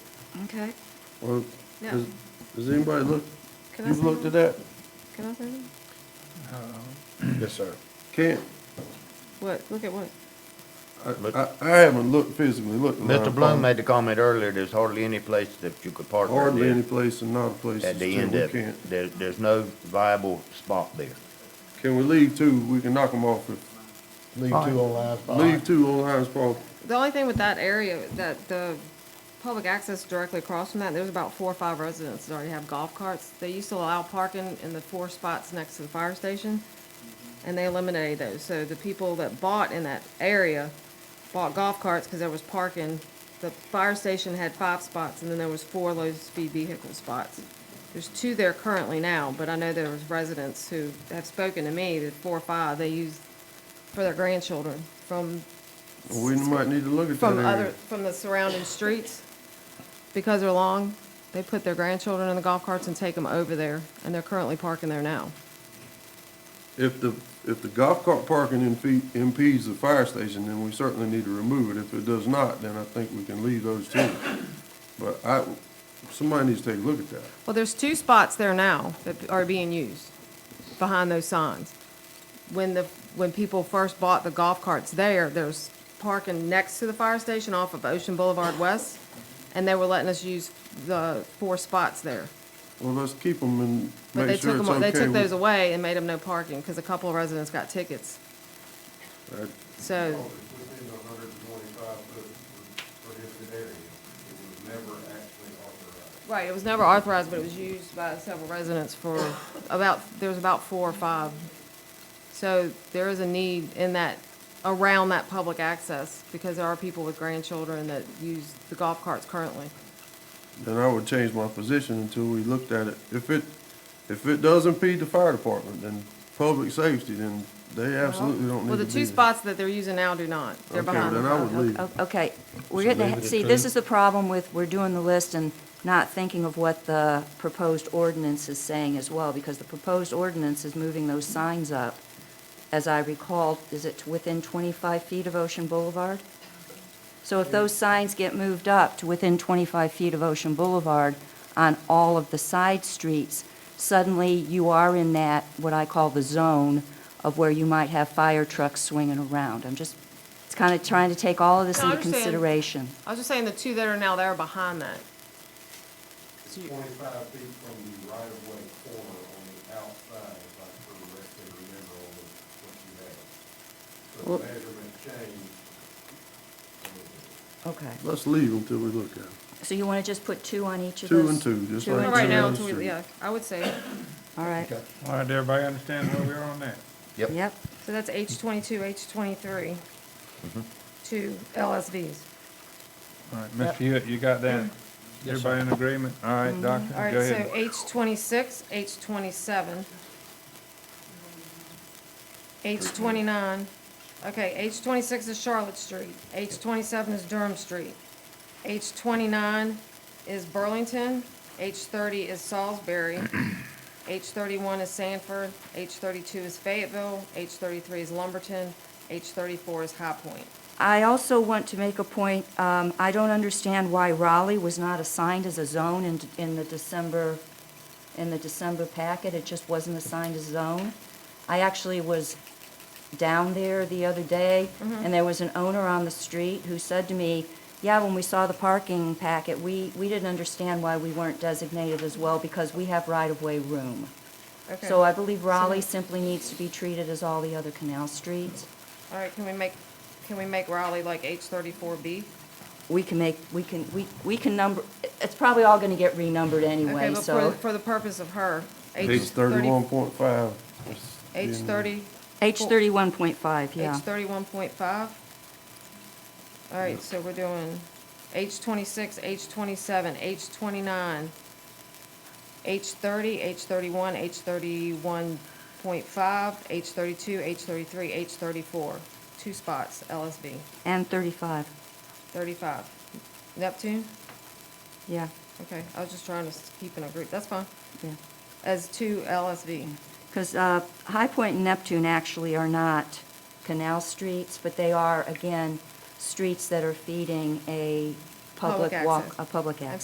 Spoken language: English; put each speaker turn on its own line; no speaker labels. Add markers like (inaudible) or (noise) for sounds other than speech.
Okay.
Well,
No.
has, has anybody looked,
Can I
you've
say
looked at
something?
that?
Can I say something?
Yes, sir.
Can't,
What? Look at what?
I,
Look.
I, I haven't looked physically, looked. in
Mr.
Lion
Bloom
Pond.
made the comment earlier, there's hardly any place that you could park right
Hardly
there
any place and not a place
at
is
the
true,
end
we
of
can't.
it. There, there's no viable spot there.
Can we leave two, we can knock them off, if-
Leave two on
oh
line
leave two on Lions Park,
The only thing with that area, that the public access directly across from that, there's about four or five residents that already have golf carts. They used to allow parking in the four spots next to the fire station, and they eliminated those. So the people that bought in that area bought golf carts because there was parking. The fire station had five spots, and then there was four low-speed vehicle spots. There's two there currently now, but I know there was residents who have spoken to me, that four or five, they use for their grandchildren from
we might need to look at that
from other,
area.
from the surrounding streets, because they're long, they put their grandchildren in the golf carts and take them over there, and they're currently parking there now.
If the, if the golf cart parking impe- impedes the fire station, then we certainly need to remove it, if it does not, then I think we can leave those two. But I, somebody needs to take a look at that.
Well, there's two spots there now that are being used, behind those signs. When the, when people first bought the golf carts there, there's parking next to the fire station off of Ocean Boulevard West, and they were letting us use the four spots there.
Well, let's keep them and
But they
make sure
took
it's
them,
okay.
they took
with-
those away and made them no parking, because a couple of residents got tickets,
I-
so.
within the hundred and twenty-five foot prohibited area. It was never actually authorized.
Right, it was never authorized, but it was used by several residents for about, there was about four or five. So there is a need in that, around that public access, because there are people with grandchildren that use the golf carts currently.
Then I would change my position until we looked at it. If it, if it does impede the fire department and public safety, then they absolutely don't
Well,
need to
the
be
two
there.
spots that they're using now do not. They're
Okay,
behind.
then
the
I would leave.
O- Oh, Okay, we're getting, to- see, this is the problem with, we're doing the list and not thinking of what the proposed ordinance is saying as well, because the proposed ordinance is moving those signs up. As I recall, is it to within 25 feet of Ocean Boulevard? So if those signs get moved up to within 25 feet of Ocean Boulevard on all of the side streets, suddenly you are in that, what I call the zone, of where you might have fire trucks swinging around. I'm just, it's kind of trying to take all of this
No, I
into
understand.
consideration.
I was just saying the two that are now there are behind that.
It's twenty-five feet from the right-of-way corner on the outside, if I correctly remember on the- what you had. So the
Well-
measurement changed. uh,
Okay.
Let's leave until we look at it.
So you want to just put two on each of
Two
those?
and two, just
Two
like
and
But
Right
Right
to
now,
the
until we-
street.
yeah, I would say,
All right,
All right, everybody understand where we are on that?
yep.
so that's H twenty-two, H twenty-three, two LSVs.
All right, Mr. Hewitt, you got that? Everybody in agreement? All right, Doctor,
All right,
go
so
ahead.
H twenty-six, H twenty-seven. H twenty-nine, okay, H twenty-six is Charlotte Street, H twenty-seven is Durham Street, H twenty-nine is Burlington, H thirty is Salisbury,
(clears throat)
H thirty-one is Sanford, H thirty-two is Fayetteville, H thirty-three is Lumberton, H thirty-four is High Point.
I also want to make a point, um, I don't understand why Raleigh was not assigned as a zone in, in the December, in the December packet, it just wasn't assigned as zone. I actually was down there the other day, and there was an owner on the street who said to me, yeah, when we saw the parking packet, we, we didn't understand why we weren't designated as well, because we have right-of-way room.
Okay,
So
all
I believe Raleigh simply needs to be treated as all the other canal streets.
right, can we make, can we make Raleigh like H thirty-four B?
we can make, we can, we, we can number, it's probably all gonna get renumbered
Okay,
anyway,
but for,
so.
for the purpose of her,
H
H
thirty-one
thirty,
point five.
H thirty,
H thirty-one point five,
H
yeah.
thirty-one point five? All right, so we're doing H twenty-six, H twenty-seven, H twenty-nine, H thirty, H thirty-one, H thirty-one point five, H thirty-two, H thirty-three, H thirty-four. Two spots, LSB,
And thirty-five,
thirty-five. Neptune?
yeah,
Okay, I was just trying to s- keep in a group, that's fine,
yeah.
as two LSV.
Because, uh, High Point and Neptune actually are not canal streets, but they are, again, streets that are feeding a
Public
public walk,
access.
a public
I've
access.